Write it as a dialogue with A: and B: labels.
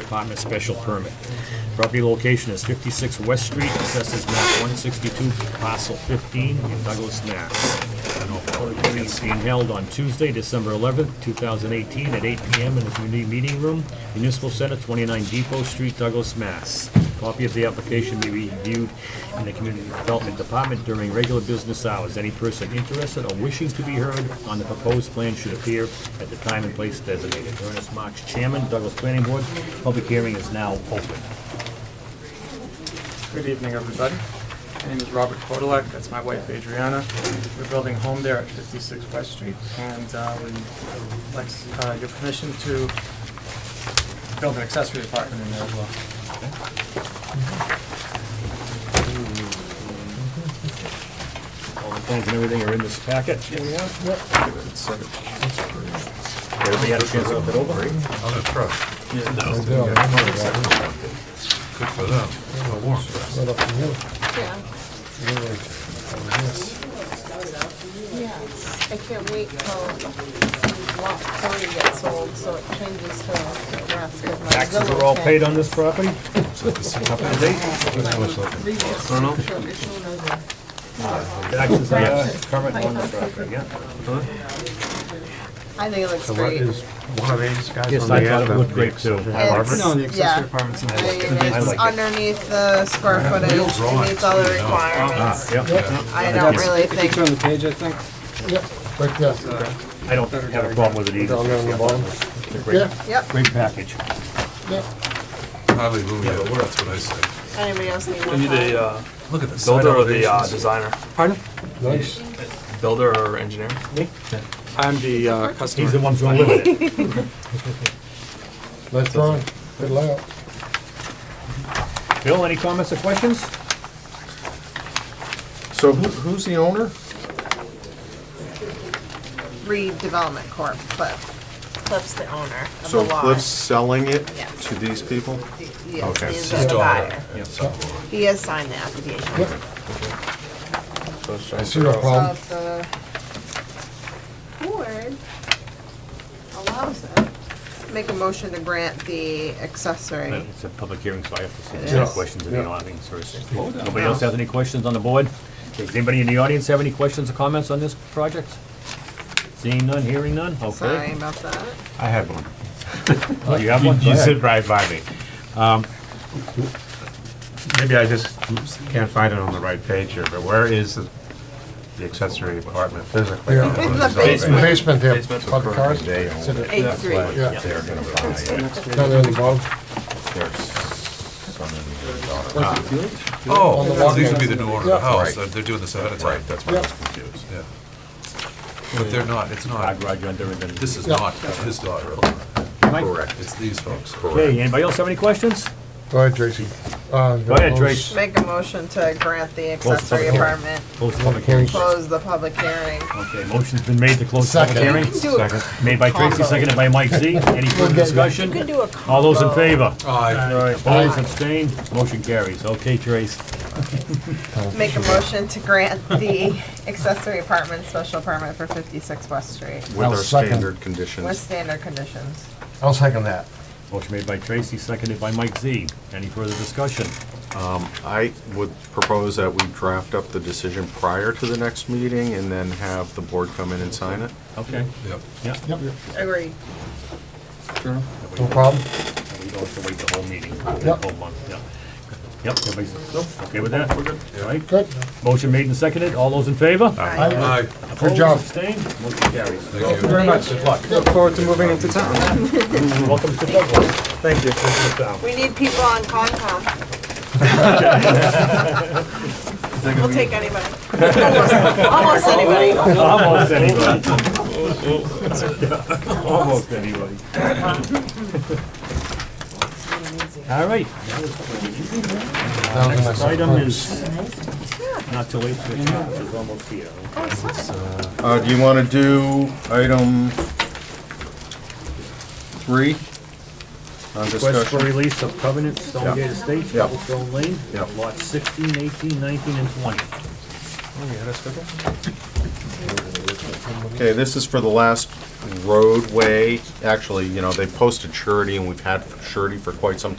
A: apartment special permit. Property location is 56 West Street, assessors map 162, parcel 15, in Douglas, Mass. It's being held on Tuesday, December 11th, 2018, at 8 PM in the Community Meeting Room, Municipal Center, 29 Depot Street, Douglas, Mass. Copy of the application may be viewed in the Community Development Department during regular business hours. Any person interested or wishing to be heard on the proposed plan should appear at the time and place designated. Ernest Marks, Chairman, Douglas Planning Board. Public hearing is now open.
B: Good evening, everybody. My name is Robert Kodalek, that's my wife Adriana. We're building a home there at 56 West Street, and uh, we'd like uh, your permission to build an accessory apartment in there as well.
A: All the plans and everything are in this packet. Everybody had a chance to look it over?
C: I'm impressed. Good for them. Well, we're impressed.
D: Yeah. Yes, I can't wait till lot three gets sold, so it changes to the rest of my.
A: Taxes are all paid on this property? Taxes are uh, current on the property, yeah.
D: I think it looks
C: So what
D: great.
C: is one of these guys
A: Yes,
C: on the
A: I
C: end?
A: thought it
C: of
A: looked
C: the
A: great too.
C: exhibit?
A: I love
D: It's-
A: it.
B: No, the accessory
D: yeah.
B: apartment's in
D: I think
B: there.
D: it
A: I
D: is
A: like it.
D: underneath the square footage, it meets all the
A: Uh-huh.
D: requirements.
A: Ah, Yeah,
D: I don't really
B: If you
D: think,
B: turn the page, I think.
E: Right there,
A: I don't have a problem with it either.
E: down there on the bottom.
A: It's a great,
E: Yeah,
D: yep,
A: great package.
E: yeah.
C: Hallelujah, that's what I say.
D: anybody else need
F: We
D: one?
F: need a
D: time?
F: uh,
C: Look at the side
F: builder or the uh,
C: elevations.
F: designer.
B: Pardon?
E: Nice.
F: Builder or engineer?
A: Me?
F: I'm the uh, customer.
A: He's the one who's gonna live in it.
E: Nice drawing. Good layout.
A: Bill, any comments or questions?
E: So who's the owner?
D: Redevelopment Corp, but Cliff's the owner of the
G: So
D: lot.
G: Cliff's selling it
D: Yeah.
G: to these people?
D: Yes,
G: Okay.
D: he's
G: His
D: the buyer.
C: Yeah, so-
D: He has signed the application.
E: I see no problem.
D: of the board allows it. Make a motion to grant the accessory.
A: It's a public hearing, so I have to see
D: It
A: if there's
D: is.
A: questions in
E: Yeah.
A: the audience first. Nobody else has any questions on the board? Does anybody in the audience have any questions or comments on this project? Seeing none, hearing none?
D: Sorry
A: Okay.
D: about that.
H: I have one.
A: Oh, You have one? Go
H: You
A: ahead.
H: sit right by me. Um, Maybe I just can't find it on the right page here, but where is the the accessory apartment physically?
E: Yeah.
H: What is
D: The
H: it?
D: basement.
E: Basement there,
H: Basement.
E: by the cars.
H: They own
E: Sit
H: it.
E: it
D: Eight
H: That's
D: three.
H: why
E: Yeah.
H: They're gonna buy it.
E: Down there on the bottom.
H: There's some in the daughter-
C: Oh, so these would be the new owner of the
E: Yeah.
C: house,
H: Right.
C: they're doing this ahead of time.
H: Right, Ah, that's why I was confused.
C: Yeah. But they're not, it's
A: Ah,
C: not,
A: garage under and then-
C: this is
E: Yeah.
C: not his daughter,
A: Mike?
C: it's these folks.
A: Okay, anybody else have any questions?
E: Go ahead, Tracy. Uh,
A: Go
E: Go
A: ahead, Trace.
D: Make a motion to grant the
A: Close the
D: accessory
A: public hearing.
D: apartment,
A: Close the public hearing.
D: close the public hearing.
A: Okay, motion's been made to close the public
E: Second.
A: hearing.
D: Do it.
A: Made by Tracy, seconded by Mike Z. Any further
D: You
A: discussion?
D: can do a
A: All those in
D: combo.
A: favor?
C: Aye.
A: Opposed, abstained, motion carries. Okay, Trace.
D: Make a motion to grant the accessory apartment special permit for fifty-six West Street
G: With
E: I'll
G: our
E: second.
G: standard
D: with
G: conditions.
D: standard conditions.
E: I'll second that.
A: Motion made by Tracy, seconded by Mike Z. Any further discussion?
G: I would propose that we draft up the decision prior to the next meeting and then have the board come in and sign it.
A: Okay,
C: Yep.
A: yeah.
E: Yep.
D: Agreed.
E: No problem.
A: We don't have to wait the whole meeting, the
E: Yep.
A: whole month, yeah. Yep, everybody's okay with that? We're good. All right,
E: Good.
A: motion made and seconded. All those in favor?
E: Aye.
C: Aye,
A: Opposed,
E: job.
A: Abstained, motion carries.
C: thank you.
B: Very much. Look forward to moving into town.
A: Welcome to Douglas.
B: Thank you.
A: Sit down.
D: We need people on Concom. We'll take anybody. Almost almost anybody.
A: Almost anybody. Almost anybody. All right,
E: That was my
A: next
E: second
A: item
E: one.
A: is not till eight fifteen, which is almost here.
G: Uh, do you wanna do item three? On
A: Request for
G: discussion?
A: release of covenant, Stonegate Estates,
G: Yeah.
A: Cobblestone Lane,
G: Yeah.
A: lots 16, 18, 19, and twenty.
G: Okay, this is for the last roadway. Actually, you know, they posted surety and we've had surety for quite some time.